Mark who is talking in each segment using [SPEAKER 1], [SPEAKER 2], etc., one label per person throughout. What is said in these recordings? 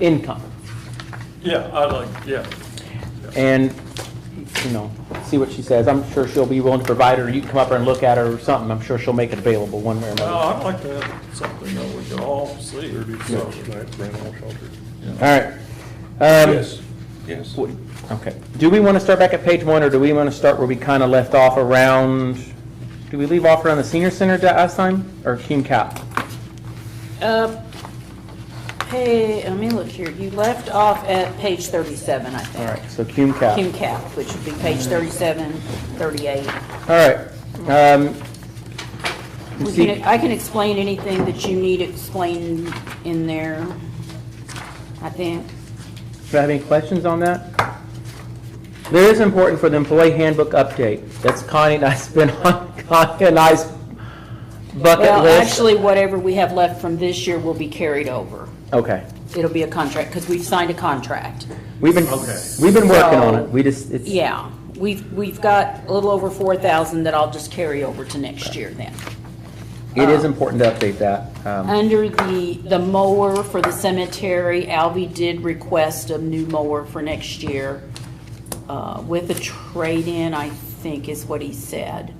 [SPEAKER 1] income
[SPEAKER 2] Yeah, I like, yeah.
[SPEAKER 1] and, you know, see what she says. I'm sure she'll be willing to provide her, you can come up here and look at her or something. I'm sure she'll make it available one way or another.
[SPEAKER 2] Well, Oh, I'd like to have something that we could all see. So,
[SPEAKER 1] All right. Um,
[SPEAKER 3] Yes, yes.
[SPEAKER 1] w- Okay. Do we want to start back at page one, or do we want to start where we kind of left off around, did we leave off around the senior center da- last time, or Cume Cap?
[SPEAKER 4] Uh, Hey, let me look here. You left off at page 37, I
[SPEAKER 1] All
[SPEAKER 4] think.
[SPEAKER 1] right, so Cume Cap.
[SPEAKER 4] Kim Cap, which would be page 37, 38.
[SPEAKER 1] All right. Um, you
[SPEAKER 4] We
[SPEAKER 1] see-
[SPEAKER 4] can- I can explain anything that you need explained in there, I think.
[SPEAKER 1] Do you have any questions on that? There is important for the employee handbook update. That's Connie and I's been on Connie and I's bucket
[SPEAKER 4] Well,
[SPEAKER 1] list.
[SPEAKER 4] actually, whatever we have left from this year will be carried over.
[SPEAKER 1] Okay.
[SPEAKER 4] It'll be a contract, because we've signed a contract.
[SPEAKER 1] We've been,
[SPEAKER 2] Okay.
[SPEAKER 1] we've been working on it.
[SPEAKER 4] So-
[SPEAKER 1] We just, it's.
[SPEAKER 4] Yeah, we've, we've got a little over 4,000 that I'll just carry over to next year then.
[SPEAKER 1] It is important to update that. Um,
[SPEAKER 4] Under the, the mower for the cemetery, Albie did request a new mower for next year, uh, with a trade-in, I think is what he said.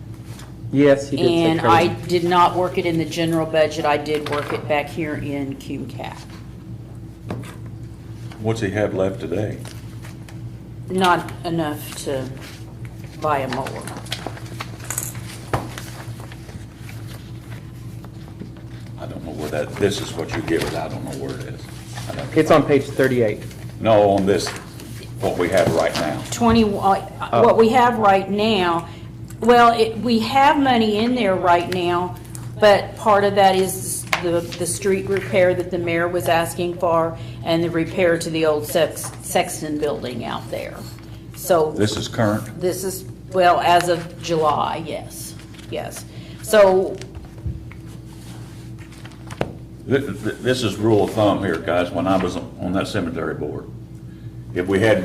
[SPEAKER 1] Yes, he did say
[SPEAKER 4] And I
[SPEAKER 1] trade.
[SPEAKER 4] did not work it in the general budget, I did work it back here in QCAP.
[SPEAKER 3] What's he have left today?
[SPEAKER 4] Not enough to buy a mower.
[SPEAKER 3] I don't know where that, this is what you give it, I don't know where it is. I don't-
[SPEAKER 1] It's on page 38.
[SPEAKER 3] No, on this, what we have right now.
[SPEAKER 4] 20, uh, what we have right now, well, it- we have money in there right now, but part of that is the, the street repair that the mayor was asking for and the repair to the old Sex- Sexton building out there. So
[SPEAKER 3] This is current,
[SPEAKER 4] this is, well, as of July, yes, yes. So
[SPEAKER 3] Th- th- this is rule of thumb here, guys, when I was on that cemetery board. If we had,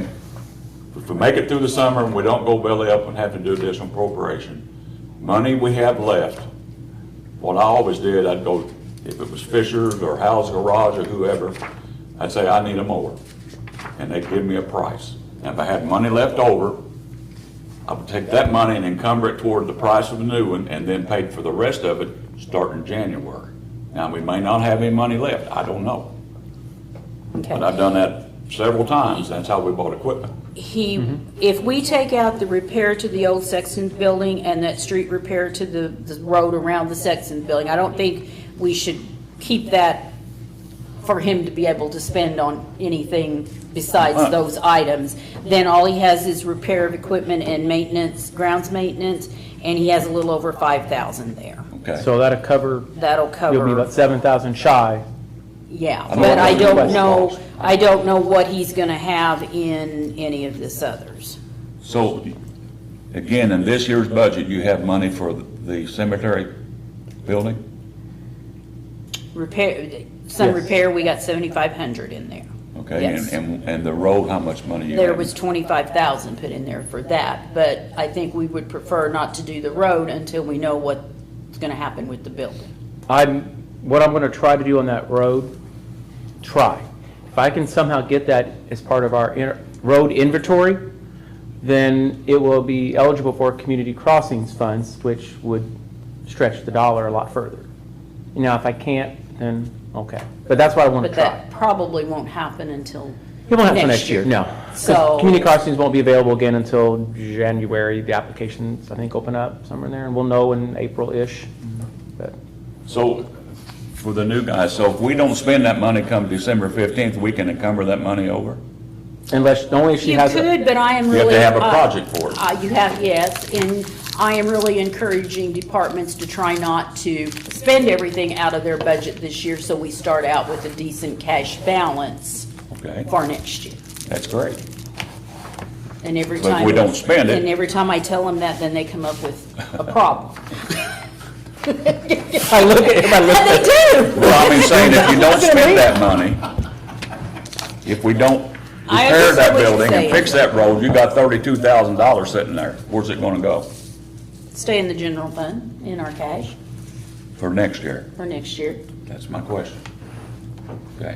[SPEAKER 3] if we make it through the summer and we don't go belly up and have to do additional appropriation, money we have left, what I always did, I'd go, if it was Fisher's or Hal's Garage or whoever, I'd say, I need a mower. And they'd give me a price. And if I had money left over, I would take that money and encumber it toward the price of the new one, and then pay for the rest of it starting January. Now, we may not have any money left, I don't know,
[SPEAKER 4] okay.
[SPEAKER 3] but I've done that several times, that's how we bought equipment.
[SPEAKER 4] he, if we take out the repair to the old Sexton building and that street repair to the, the road around the Sexton building, I don't think we should keep that for him to be able to spend on anything besides
[SPEAKER 3] Uh-huh.
[SPEAKER 4] those items. Then all he has is repair of equipment and maintenance, grounds maintenance, and he has a little over five thousand there.
[SPEAKER 3] Okay,
[SPEAKER 1] So that'll cover,
[SPEAKER 4] That'll cover.
[SPEAKER 1] you'll be about 7,000 shy.
[SPEAKER 4] Yeah,
[SPEAKER 3] I don't know
[SPEAKER 4] but I
[SPEAKER 3] what the
[SPEAKER 4] don't
[SPEAKER 3] request
[SPEAKER 4] know,
[SPEAKER 3] was.
[SPEAKER 4] I don't know what he's gonna have in any of this others.
[SPEAKER 3] so, again, in this year's budget, you have money for the cemetery building?
[SPEAKER 4] Repair, some
[SPEAKER 1] Yes.
[SPEAKER 4] repair, we got seventy-five hundred in there.
[SPEAKER 3] Okay, and,
[SPEAKER 4] Yes.
[SPEAKER 3] and, and the road, how much money you
[SPEAKER 4] There was
[SPEAKER 3] have?
[SPEAKER 4] twenty-five thousand put in there for that, but I think we would prefer not to do the road until we know what's gonna happen with the building.
[SPEAKER 1] I'm, what I'm gonna try to do on that road, try. If I can somehow get that as part of our inter- road inventory, then it will be eligible for community crossings funds, which would stretch the dollar a lot further. Now, if I can't, then, okay. But that's what I wanna
[SPEAKER 4] But
[SPEAKER 1] try.
[SPEAKER 4] that probably won't happen until
[SPEAKER 1] It won't happen till
[SPEAKER 4] next year.
[SPEAKER 1] No. 'Cause
[SPEAKER 4] So-
[SPEAKER 1] Community crossings won't be available again until January. The applications, I think, open up somewhere in there, and we'll know in April-ish.
[SPEAKER 4] Mm-hmm.
[SPEAKER 1] But
[SPEAKER 3] So, for the new guys, so if we don't spend that money come December fifteenth, we can encumber that money over?
[SPEAKER 1] Unless, only if she
[SPEAKER 4] You
[SPEAKER 1] has. a-
[SPEAKER 4] could, but I am
[SPEAKER 3] You have to
[SPEAKER 4] really.
[SPEAKER 3] have a
[SPEAKER 4] uh,
[SPEAKER 3] project for it.
[SPEAKER 4] uh, You have, yes, and I am really encouraging departments to try not to spend everything out of their budget this year, so we start out with a decent cash balance
[SPEAKER 3] Okay.
[SPEAKER 4] for next year.
[SPEAKER 3] That's great.
[SPEAKER 4] And every
[SPEAKER 3] But if
[SPEAKER 4] time.
[SPEAKER 3] we don't spend it-
[SPEAKER 4] And every time I tell them that, then they come up with a problem.
[SPEAKER 1] I look at, if I look at.
[SPEAKER 3] Well, I mean, saying if you don't spend that money, if we don't
[SPEAKER 4] I
[SPEAKER 3] repair that
[SPEAKER 4] understand what you're
[SPEAKER 3] building and
[SPEAKER 4] saying.
[SPEAKER 3] fix that road, you got thirty-two thousand dollars sitting there. Where's it gonna go
[SPEAKER 4] Stay in the general fund, in our cash,
[SPEAKER 3] for next year?
[SPEAKER 4] for next year.
[SPEAKER 3] That's my question. Okay.